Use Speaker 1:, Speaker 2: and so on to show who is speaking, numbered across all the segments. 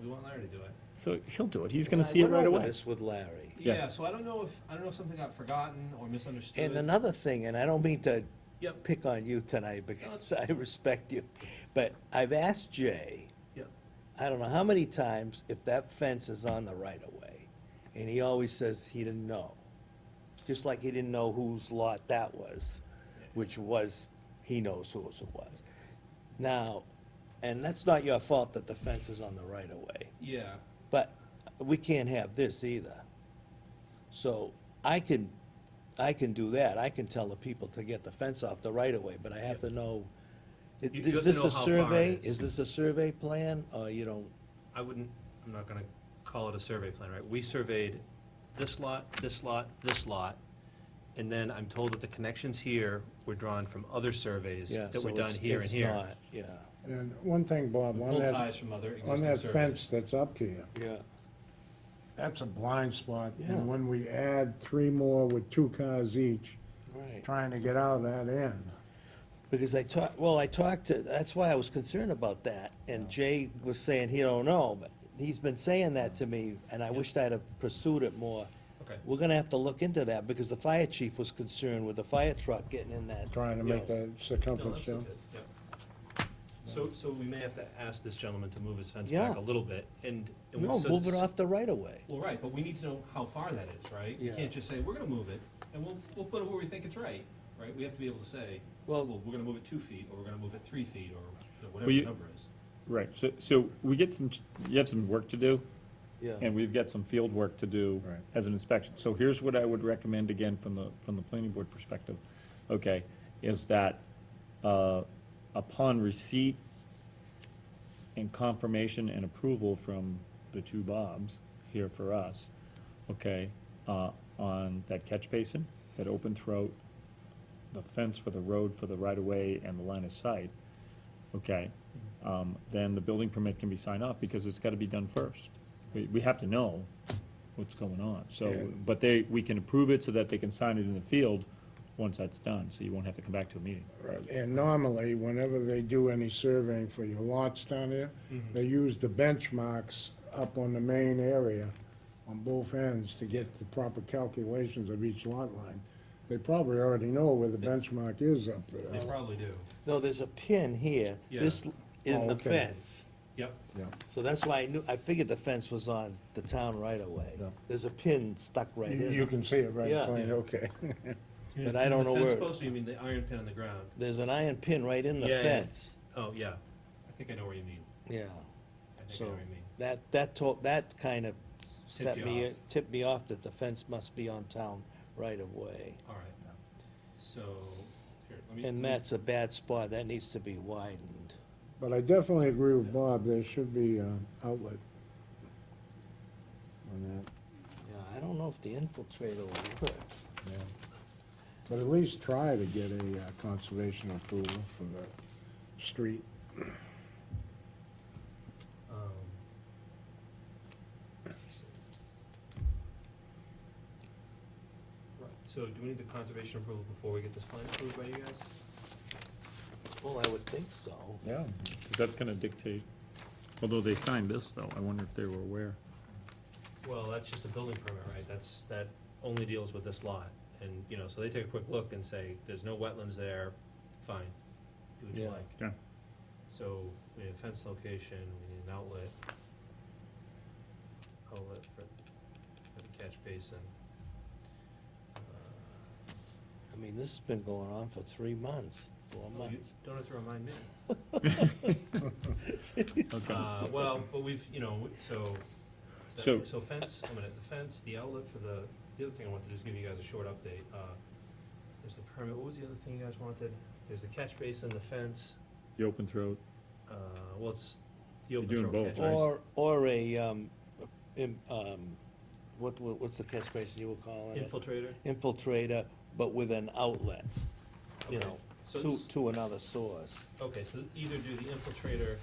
Speaker 1: we want Larry to do it.
Speaker 2: So he'll do it. He's gonna see it right away.
Speaker 3: This with Larry.
Speaker 2: Yeah.
Speaker 1: Yeah, so I don't know if, I don't know if something got forgotten or misunderstood.
Speaker 3: And another thing, and I don't mean to
Speaker 1: Yep.
Speaker 3: pick on you tonight because I respect you, but I've asked Jay,
Speaker 1: Yeah,
Speaker 3: I don't know how many times, if that fence is on the right of way, and he always says he didn't know. Just like he didn't know whose lot that was, which was, he knows whose it was. Now, and that's not your fault that the fence is on the right of way.
Speaker 1: yeah,
Speaker 3: But we can't have this either. So I can, I can do that, I can tell the people to get the fence off the right of way, but I have to know, i-
Speaker 1: You- you have
Speaker 3: is
Speaker 1: to
Speaker 3: this
Speaker 1: know
Speaker 3: a
Speaker 1: how far it
Speaker 3: survey?
Speaker 1: is.
Speaker 3: Is this a survey plan, or you don't,
Speaker 1: I wouldn't, I'm not gonna call it a survey plan, right? We surveyed this lot, this lot, this lot, and then I'm told that the connections here were drawn from other surveys
Speaker 3: yeah,
Speaker 1: that
Speaker 3: so
Speaker 1: were done
Speaker 3: it's,
Speaker 1: here and
Speaker 3: it's
Speaker 1: here.
Speaker 3: not, yeah.
Speaker 4: And one thing, Bob, on
Speaker 1: Pull
Speaker 4: that,
Speaker 1: ties from other
Speaker 4: on
Speaker 1: existing
Speaker 4: that
Speaker 1: surveys.
Speaker 4: fence that's up to you,
Speaker 3: Yeah.
Speaker 4: that's a blind spot.
Speaker 3: Yeah.
Speaker 4: And when we add three more with two cars each,
Speaker 3: Right.
Speaker 4: trying to get out of that end,
Speaker 3: Because I talked, well, I talked to, that's why I was concerned about that, and Jay was saying he don't know, but he's been saying that to me, and I wished I'd have pursued it more.
Speaker 1: Okay.
Speaker 3: We're gonna have to look into that, because the fire chief was concerned with the fire truck getting in that.
Speaker 4: trying to make
Speaker 3: Yeah.
Speaker 4: that
Speaker 1: No,
Speaker 4: circumference,
Speaker 1: that's
Speaker 4: you know?
Speaker 1: okay, yeah. So, so we may have to ask this gentleman to move his fence
Speaker 3: Yeah.
Speaker 1: back a little bit, and. and we-
Speaker 3: No,
Speaker 1: so-
Speaker 3: move it off the right of way.
Speaker 1: Well, right, but we need to know how far that is, right? You
Speaker 3: Yeah.
Speaker 1: can't just say, we're gonna move it, and we'll, we'll put it where we think it's right, right? We have to be able to say, well,
Speaker 3: Well-
Speaker 1: we're gonna move it two feet, or we're gonna move it three feet, or you know, whatever
Speaker 2: Well,
Speaker 1: the
Speaker 2: you-
Speaker 1: number is.
Speaker 2: Right, so, so we get some, you have some work to do.
Speaker 3: Yeah.
Speaker 2: And we've got some field work to do
Speaker 4: Right.
Speaker 2: as an inspection. So here's what I would recommend again from the, from the planning board perspective, okay, is that, uh, upon receipt and confirmation and approval from the two Bobs here for us, okay, uh, on that catch basin, that open throat, the fence for the road for the right-of-way and the line of sight, okay, um, then the building permit can be signed off, because it's gotta be done first. We, we have to know what's going on, so,
Speaker 4: Yeah.
Speaker 2: but they, we can approve it so that they can sign it in the field once that's done, so you won't have to come back to a meeting.
Speaker 4: And normally, whenever they do any surveying for your lots down there,
Speaker 1: Mm-hmm.
Speaker 4: they use the benchmarks up on the main area on both ends to get the proper calculations of each lot line. They probably already know where the benchmark is up
Speaker 1: They
Speaker 4: there.
Speaker 1: probably do.
Speaker 3: No, there's a pin here, this,
Speaker 1: Yeah.
Speaker 3: in
Speaker 4: Oh,
Speaker 3: the
Speaker 4: okay.
Speaker 3: fence.
Speaker 1: Yep,
Speaker 3: So that's why I knew, I figured the fence was on the town right of way.
Speaker 4: Yeah.
Speaker 3: There's a pin stuck right
Speaker 4: You
Speaker 3: in.
Speaker 4: you
Speaker 3: it.
Speaker 4: can see it right
Speaker 3: Yeah.
Speaker 4: plain, okay.
Speaker 1: You
Speaker 3: But
Speaker 1: mean
Speaker 3: I don't
Speaker 1: the
Speaker 3: know
Speaker 1: fence
Speaker 3: where-
Speaker 1: post, or you mean the iron pin on the ground?
Speaker 3: There's an iron pin right in the
Speaker 1: Yeah, yeah.
Speaker 3: fence.
Speaker 1: Oh, yeah, I think I know where you mean. I
Speaker 3: Yeah.
Speaker 1: think I know
Speaker 3: So
Speaker 1: what you mean.
Speaker 3: that, that told, that kind of set
Speaker 1: you
Speaker 3: me,
Speaker 1: off.
Speaker 3: tipped me off that the fence must be on town right of way.
Speaker 1: All right, so, here, let me.
Speaker 3: And
Speaker 1: let me-
Speaker 3: that's a bad spot. That needs to be widened.
Speaker 4: But I definitely agree with Bob, there should be uh, outlet on
Speaker 3: Yeah, I don't know if the infiltrator will work.
Speaker 4: that, yeah. But at least try to get a uh, conservation approval for the street.
Speaker 1: um, Right, So do we need the conservation approval before we get this plan approved by you guys?
Speaker 3: Well, I would think so.
Speaker 4: Yeah.
Speaker 2: Because that's gonna dictate, although they signed this, though, I wonder if they were aware.
Speaker 1: Well, that's just a building permit, right? That's, that only deals with this lot. And, you know, so they take a quick look and say, there's no wetlands there, fine, do what you
Speaker 3: Yeah.
Speaker 1: like.
Speaker 2: Yeah.
Speaker 1: So we need a fence location, we need an outlet. Outlet for, for the catch basin. Uh,
Speaker 3: I mean, this has been going on for three months, four
Speaker 1: oh, you
Speaker 3: months.
Speaker 1: Don't have to remind me.
Speaker 2: Okay.
Speaker 1: Uh, well, but we've, you know, we- so,
Speaker 2: So-
Speaker 1: so fence, I'm gonna, the fence, the outlet for the, the other thing I wanted to do is give you guys a short update. Uh, There's the permit, what was the other thing you guys wanted? There's the catch basin, the fence,
Speaker 2: The open throat,
Speaker 1: uh, well, it's the
Speaker 2: You're
Speaker 1: open
Speaker 2: doing
Speaker 1: throw
Speaker 2: both,
Speaker 1: catch.
Speaker 2: right?
Speaker 3: Or, or a, um, im- um, what, what- what's the catch basin you were calling it?
Speaker 1: Infiltrator.
Speaker 3: Infiltrator, but with an outlet, you
Speaker 1: Okay.
Speaker 3: know,
Speaker 1: So
Speaker 3: to,
Speaker 1: it's-
Speaker 3: to another source.
Speaker 1: Okay, so either do the infiltrator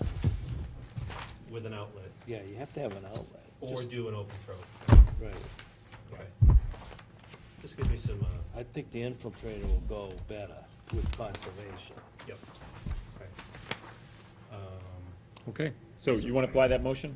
Speaker 1: with an outlet,
Speaker 3: Yeah, you have to have an outlet.
Speaker 1: or
Speaker 3: Just-
Speaker 1: do an open throw.
Speaker 3: Right.
Speaker 1: Okay. Just give me some, uh,
Speaker 3: I think the infiltrator will go better with conservation.
Speaker 1: yep, okay. Um,
Speaker 2: okay, so you wanna fly that motion?